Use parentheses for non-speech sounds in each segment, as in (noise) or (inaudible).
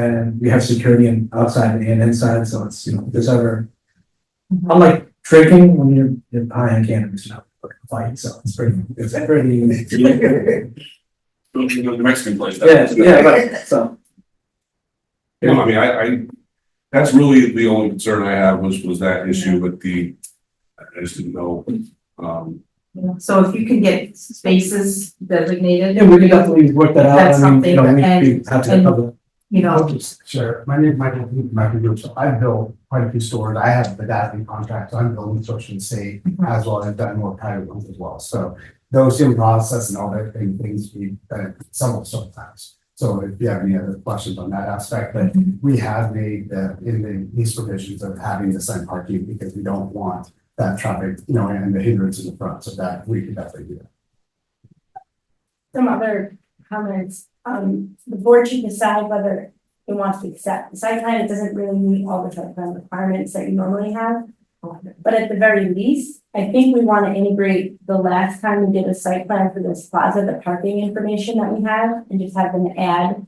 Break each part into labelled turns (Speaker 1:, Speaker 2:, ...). Speaker 1: And we have security and outside and inside, so it's, you know, if there's ever, unlike drinking when you're, you're high on cannabis, you know, fight, so it's pretty, it's pretty easy.
Speaker 2: Don't you go to the Mexican place?
Speaker 1: Yeah, yeah, right, so.
Speaker 2: No, I mean, I, I, that's really the only concern I have was, was that issue with the, I just didn't know. Um,
Speaker 3: Mm-hmm.
Speaker 4: So if you can get spaces designated.
Speaker 1: Yeah, we could definitely work that out.
Speaker 4: That's
Speaker 1: I mean, you know,
Speaker 4: something,
Speaker 1: we- we
Speaker 4: and-
Speaker 1: have to
Speaker 4: and-
Speaker 1: cover-
Speaker 4: You know,
Speaker 5: Sure, my name is Michael, Michael Group, so I've built quite a few stores, I have the data contract, so I'm building social and safe,
Speaker 4: Mhm.
Speaker 5: as well, I've done more private ones as well, so. Those in process and all that thing, things we, uh, some of sometimes, so if you have any other questions on that aspect, but
Speaker 1: Mm-hmm.
Speaker 4: Mhm.
Speaker 5: we have made the, in the lease provisions of having the sign parking, because we don't want that traffic, you know, and the hindrance in the front, so that we can definitely do that.
Speaker 6: some other comments, um, the board should decide whether it wants to accept. The site plan, it doesn't really meet all the site plan requirements that you normally have. But at the very least, I think we want to integrate the last time we did a site plan for this plaza, the parking information that we have, and just have them add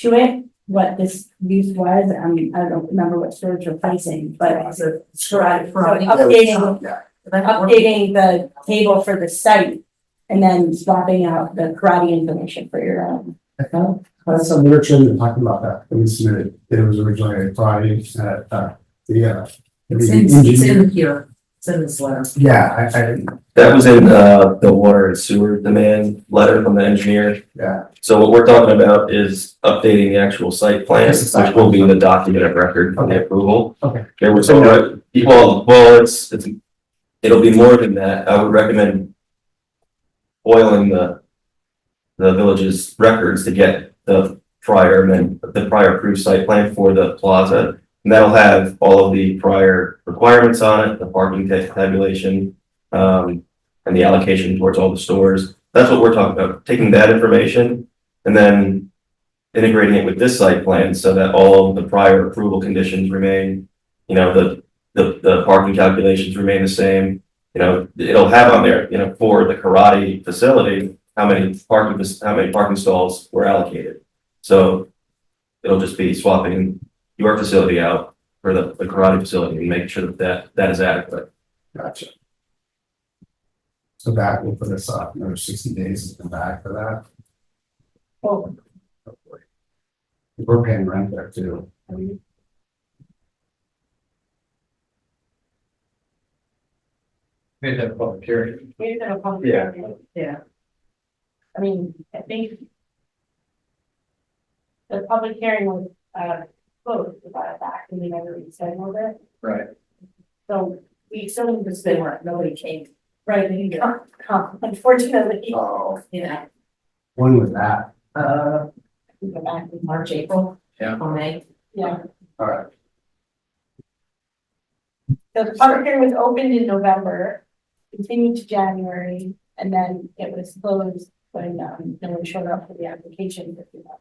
Speaker 6: to it what this use was, I mean, I don't remember what storage replacing, but it's a garage, so updating updating the table for the site and then swapping out the karate information for your own.
Speaker 5: I thought, that's something we were trying to talk about that, when we submitted, it was originally a project, uh, uh, the, uh. the
Speaker 3: It's in, it's
Speaker 5: engineer-
Speaker 1: Mm-hmm.
Speaker 3: in here, uh, it's in this letter.
Speaker 5: Yeah, I, I,
Speaker 7: That was in, uh, the water and sewer demand letter from the engineer.
Speaker 5: yeah,
Speaker 7: So what we're talking about is updating the actual site plan,
Speaker 5: Just the site
Speaker 7: which will be the document of record for the approval.
Speaker 5: Okay.
Speaker 7: There was, well, well, it's, it's, it'll be more than that. I would recommend oiling the, the village's records to get the prior, amend the prior approved site plan for the plaza. And that'll have all of the prior requirements on it, the parking ta- tabulation, um, and the allocation towards all the stores. That's what we're talking about, taking that information and then integrating it with this site plan so that all of the prior approval conditions remain, you know, the, the, the parking calculations remain the same. You know, it'll have on there, you know, for the karate facility, how many parking, how many parking stalls were allocated. So it'll just be swapping your facility out for the, the karate facility and making sure that that, that is adequate.
Speaker 5: gotcha. So that will put us up, another sixty days to come back for that.
Speaker 6: Oh.
Speaker 5: We're paying rent there too.
Speaker 8: Made that a public hearing.
Speaker 7: Yeah.
Speaker 3: Yeah.
Speaker 6: I mean, I think the public hearing was, uh, closed about it back, and we never rescheduled it.
Speaker 8: Right.
Speaker 6: So we still need to
Speaker 3: They
Speaker 6: spend,
Speaker 3: weren't, nobody came,
Speaker 6: right, (laughs) we need to come, unfortunately,
Speaker 5: Oh.
Speaker 3: you know,
Speaker 5: When was that?
Speaker 3: uh,
Speaker 6: we go back in March,
Speaker 3: March, April.
Speaker 8: Yeah.
Speaker 3: Or May.
Speaker 6: yeah.
Speaker 5: All right,
Speaker 6: So the public hearing was opened in November, continued to January, and then it was closed when, um, no one showed up for the application. for the-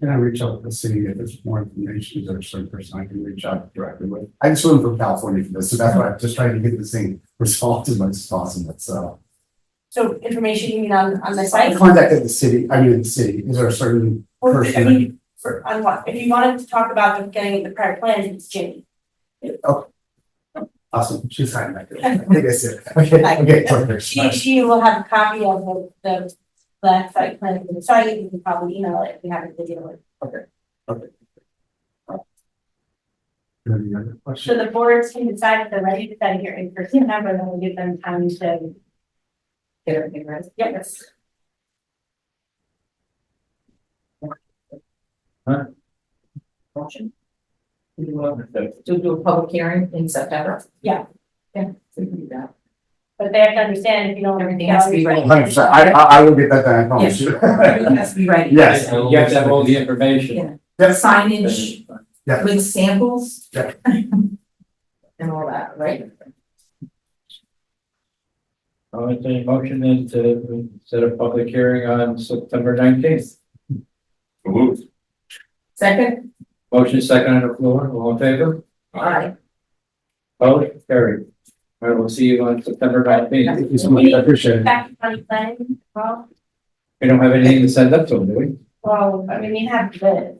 Speaker 5: can I reach out to the city if there's more information, is there a certain person I can reach out directly with? I just went from California for this, so that's why I'm just trying to get this thing resolved as much as possible, so.
Speaker 6: So information you mean on, on the site?
Speaker 5: I contacted the city, I mean, the city, is there a certain
Speaker 6: Or, I
Speaker 5: person?
Speaker 6: mean, for, on what, if you wanted to talk about the getting the prior plans, it's Jimmy.
Speaker 5: Awesome, she's signing back. there. I think that's it. Okay,
Speaker 6: Hi.
Speaker 5: okay, perfect.
Speaker 6: She, she will have a copy of the, the last site plan for the site, you can probably email it if you have a video.
Speaker 5: Any other questions?
Speaker 6: So the boards can decide if they're ready to send here in person, and then we'll give them time to,
Speaker 3: Get everything right.
Speaker 6: yes.
Speaker 3: Motion. You, uh, to do a public hearing in September.
Speaker 6: Yeah.
Speaker 3: Yeah. We can do that.
Speaker 6: But they have to understand if you don't.
Speaker 3: Everything has to be ready.
Speaker 5: Oh, Hundred percent, I, I, I will get that done, I promise
Speaker 6: (laughs)
Speaker 5: you.
Speaker 3: Everything has to be ready.
Speaker 5: Yes.
Speaker 8: You have to have all the information.
Speaker 5: Yes,
Speaker 3: Signage.
Speaker 5: Yeah.
Speaker 3: With samples.
Speaker 5: Yeah.
Speaker 3: (laughs) And all that, right?
Speaker 8: I'll entertain a motion then to set a public hearing on September nineteenth.
Speaker 2: moved.
Speaker 3: Second,
Speaker 8: Motion second on the floor, all in favor?
Speaker 3: aye.
Speaker 8: Vote carried. All right, we'll see you on September nineteenth.
Speaker 5: thank you so much, I appreciate it.
Speaker 6: Back to county planning, well,
Speaker 8: We don't have anything to send up to them, do we?
Speaker 6: Well, I mean, you have the